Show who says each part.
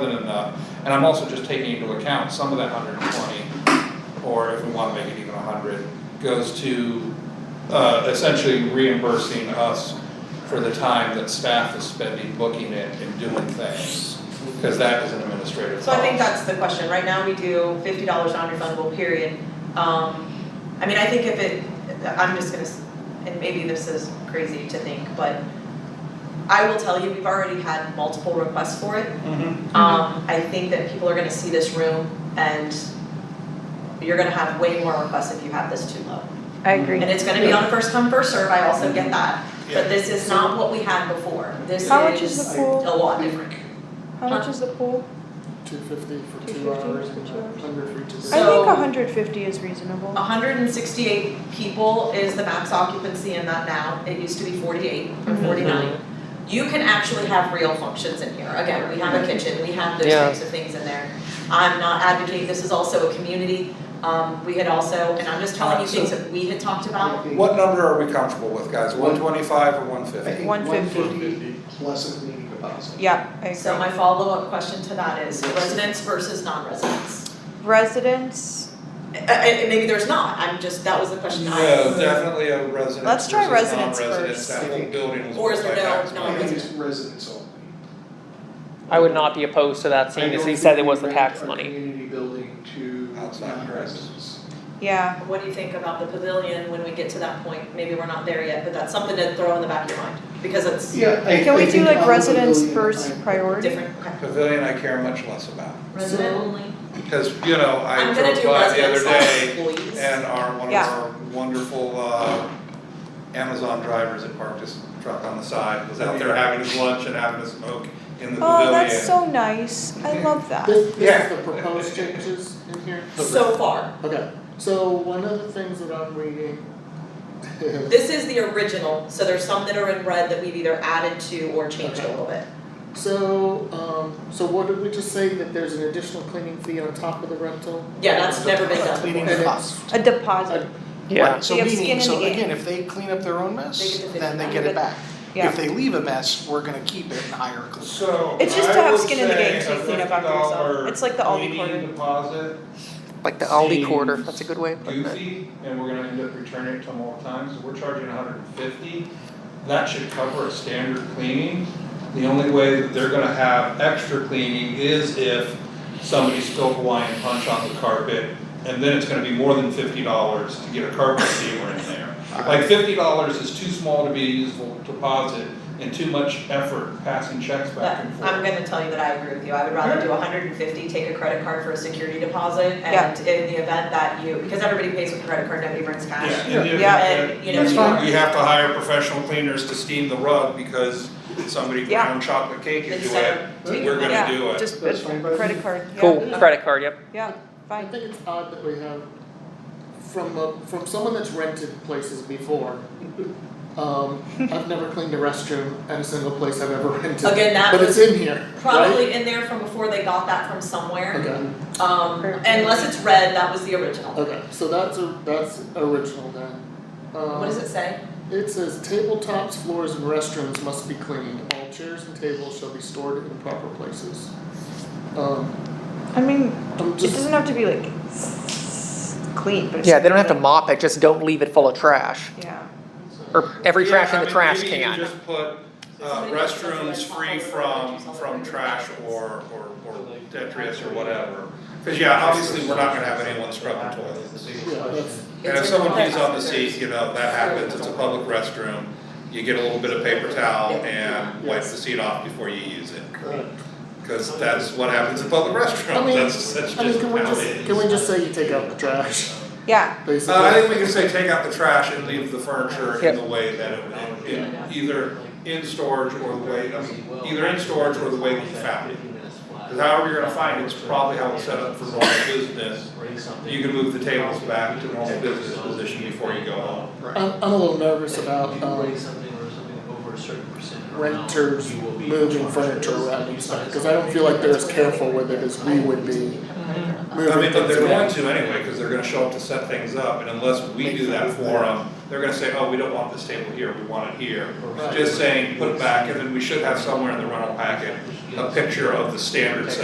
Speaker 1: than enough, and I'm also just taking into account some of that hundred and twenty, or if we wanna make it even hundred, goes to, uh, essentially reimbursing us for the time that staff is spending booking it and doing things, cause that is an administrative cost.
Speaker 2: So I think that's the question, right now we do fifty dollars non-refundable, period. Um, I mean, I think if it, I'm just gonna, s- and maybe this is crazy to think, but I will tell you, we've already had multiple requests for it.
Speaker 1: Mhm.
Speaker 3: Mm-hmm.
Speaker 2: Um, I think that people are gonna see this room and you're gonna have way more requests if you have this too low.
Speaker 3: I agree.
Speaker 2: And it's gonna be on a first come, first serve, I also get that,
Speaker 1: Yeah.
Speaker 2: but this is not what we had before, this
Speaker 3: How much is
Speaker 2: is
Speaker 3: the
Speaker 2: a
Speaker 3: pool?
Speaker 2: lot different.
Speaker 3: How much is the pool?
Speaker 4: Two fifty for two
Speaker 3: 250
Speaker 4: hours
Speaker 3: for
Speaker 4: and
Speaker 3: two hours.
Speaker 4: hundred for each.
Speaker 3: I
Speaker 2: So- Uh,
Speaker 3: think hundred fifty is reasonable.
Speaker 2: hundred and sixty-eight people is the max occupancy in that now, it used to be forty-eight or
Speaker 3: Mhm.
Speaker 2: forty-nine. You can actually have real functions in here, again, we have a kitchen, we have those
Speaker 5: Yeah.
Speaker 2: types of things in there. I'm not advocating, this is also a community, um, we had also, and I'm just telling you
Speaker 1: Alright,
Speaker 2: things
Speaker 1: so-
Speaker 2: that we had talked about,
Speaker 1: What number are we comfortable with, guys, one twenty-five or one
Speaker 4: I
Speaker 1: fifty?
Speaker 4: think
Speaker 3: 150.
Speaker 4: 150 plus a community deposit.
Speaker 3: Yeah, I
Speaker 2: so
Speaker 3: agree.
Speaker 2: my follow-up question to that is residents versus non-residents.
Speaker 3: Residents,
Speaker 2: Uh, uh, and maybe there's not, I'm just, that was the question I.
Speaker 1: No, definitely a resident
Speaker 3: Let's try
Speaker 1: versus
Speaker 3: residents
Speaker 1: non-residents,
Speaker 3: first.
Speaker 1: that whole building was
Speaker 2: Or is
Speaker 1: built by
Speaker 2: there no-
Speaker 1: tax
Speaker 2: no
Speaker 1: money.
Speaker 4: I think it's residents only.
Speaker 5: I would not be opposed to that, seeing as he said it was the tax money.
Speaker 4: I don't think we rent our community building to
Speaker 1: Outside of
Speaker 4: non-residents.
Speaker 3: yeah,
Speaker 2: What do you think about the pavilion when we get to that point? Maybe we're not there yet, but that's something to throw in the back of your mind, because it's
Speaker 4: Yeah, I,
Speaker 3: can
Speaker 4: I
Speaker 3: we
Speaker 4: think
Speaker 3: do
Speaker 4: on
Speaker 3: like
Speaker 4: the
Speaker 3: residents
Speaker 4: pavilion,
Speaker 3: first
Speaker 4: I-
Speaker 3: priority?
Speaker 2: different, okay.
Speaker 1: Pavilion I care much less about,
Speaker 2: Resident only?
Speaker 1: because, you know, I
Speaker 2: I'm gonna
Speaker 1: drove
Speaker 2: do
Speaker 1: by the
Speaker 2: resident
Speaker 1: other day.
Speaker 2: slash employees.
Speaker 1: And our, one of
Speaker 3: Yeah.
Speaker 1: our wonderful uh Amazon drivers that parked his truck on the side, was out there having his lunch and having a smoke in the pavilion.
Speaker 3: Oh, that's so nice. I love that.
Speaker 6: This,
Speaker 1: Yeah.
Speaker 6: this is the proposed changes in here?
Speaker 2: So far,
Speaker 6: Okay, so one of the things that I'm reading is,
Speaker 2: this is the original, so there's some that are in red that we've either added to or changed a little bit.
Speaker 6: so, um, so what did we just say, that there's an additional cleaning fee on top of the rental?
Speaker 2: Yeah, that's never been done
Speaker 4: Cleaning
Speaker 2: before.
Speaker 6: And
Speaker 4: costs.
Speaker 3: A deposit,
Speaker 5: Yeah,
Speaker 4: Right, so
Speaker 3: We have skin
Speaker 4: meaning,
Speaker 3: in
Speaker 4: so
Speaker 3: the game.
Speaker 4: again, if they clean up their own
Speaker 2: They get
Speaker 4: mess,
Speaker 2: the fifty
Speaker 4: then they
Speaker 2: back.
Speaker 4: get it back.
Speaker 3: yeah.
Speaker 4: If they leave a mess, we're gonna keep it and hire a cleaner.
Speaker 1: So
Speaker 3: It's just to
Speaker 1: I
Speaker 3: have
Speaker 1: would
Speaker 3: skin in the
Speaker 1: say
Speaker 3: game, so
Speaker 1: a
Speaker 3: you clean up after yourself.
Speaker 1: $50
Speaker 3: It's like the Aldi
Speaker 1: cleaning
Speaker 3: quarter.
Speaker 1: deposit,
Speaker 5: like the Aldi
Speaker 1: Seems
Speaker 5: quarter, that's a good way of putting it.
Speaker 1: goofy, and we're gonna end up returning it to them all the time, so we're charging hundred and fifty. That should cover a standard cleaning. The only way that they're gonna have extra cleaning is if somebody spilled Hawaiian punch on the carpet, and then it's gonna be more than fifty dollars to get a carpet steamer in there. Like fifty dollars is too small to be a useful deposit and too much effort passing checks
Speaker 2: But
Speaker 1: back and forth.
Speaker 2: I'm gonna tell you that I agree with you, I would rather do hundred and fifty, take a credit card for a security deposit,
Speaker 3: Yeah.
Speaker 2: and in the event that you, because everybody pays with a credit card, nobody brings cash.
Speaker 1: Yeah, and
Speaker 3: Yeah.
Speaker 2: And, you know,
Speaker 4: That's fine.
Speaker 1: We have to hire professional cleaners to steam the rug because somebody
Speaker 3: Yeah.
Speaker 1: browned chocolate cake
Speaker 2: They
Speaker 1: into
Speaker 2: just
Speaker 1: it,
Speaker 2: have to take
Speaker 1: we're
Speaker 2: it.
Speaker 1: gonna do
Speaker 3: yeah,
Speaker 1: it.
Speaker 3: just
Speaker 4: That's fine by
Speaker 3: a
Speaker 4: me.
Speaker 3: credit card, yeah.
Speaker 5: Cool, credit card, yep.
Speaker 3: Yeah,
Speaker 6: I
Speaker 3: fine.
Speaker 6: think it's odd that we have, from a, from someone that's rented places before, um, I've never cleaned a restroom at a single place I've ever rented.
Speaker 2: Again, that
Speaker 6: But
Speaker 2: was
Speaker 6: it's in here, right?
Speaker 2: Probably in there from before they got that from somewhere.
Speaker 6: Okay.
Speaker 2: Um, unless it's red, that was the original.
Speaker 6: Okay, so that's a, that's original then. Um,
Speaker 2: What does it say?
Speaker 6: It says tabletops, floors, and restrooms must be cleaned. All chairs and tables shall be stored in proper places. Um,
Speaker 3: I mean,
Speaker 6: I'm
Speaker 3: it
Speaker 6: just,
Speaker 3: doesn't have to be like s- clean, but it's.
Speaker 5: Yeah, they don't have to mop it, just don't leave it full of trash,
Speaker 3: Yeah,
Speaker 5: or every trash in the trash
Speaker 1: Yeah, I mean, maybe you
Speaker 5: can.
Speaker 1: just put uh
Speaker 2: Somebody else does it
Speaker 1: restrooms
Speaker 2: as well.
Speaker 1: free from from trash or or or
Speaker 7: Like-
Speaker 1: detritus or whatever. Cause yeah, obviously, we're not gonna have anyone scrubbing toilets.
Speaker 6: yeah, that's,
Speaker 1: And if
Speaker 2: It's
Speaker 1: someone
Speaker 2: in the
Speaker 1: pees on the
Speaker 2: class.
Speaker 1: seat, you know, that happens, it's a public restroom, you get a little bit of paper towel and wipe the seat off before you use it. Cause that's what happens in public
Speaker 6: I
Speaker 1: restrooms,
Speaker 6: mean-
Speaker 1: that's that's just how it
Speaker 6: I
Speaker 1: is.
Speaker 6: mean, can we just, can we just say you take out the trash,
Speaker 3: yeah,
Speaker 6: basically?
Speaker 1: Uh, I think we can say take out the trash and leave the furniture in
Speaker 5: Yep.
Speaker 1: the way that it, it, it- either in storage or the way, I mean, either in storage or the way that you found it. Cause however you're gonna find it, it's probably how it's set up for normal business. You can move the tables back to normal business position before you go home.
Speaker 6: I'm, I'm a little nervous about, um, renters moving furniture around and stuff, because I don't feel like they're as careful with it as we would be
Speaker 1: I
Speaker 6: moving
Speaker 1: mean, but
Speaker 6: things
Speaker 1: they're going
Speaker 6: around.
Speaker 1: to anyway, cause they're gonna show up to set things up, and unless we do that for them, they're gonna say, oh, we don't want this table here, we want it here. Just saying, put it back, and then we should have somewhere in the rental packet, a picture of the standard set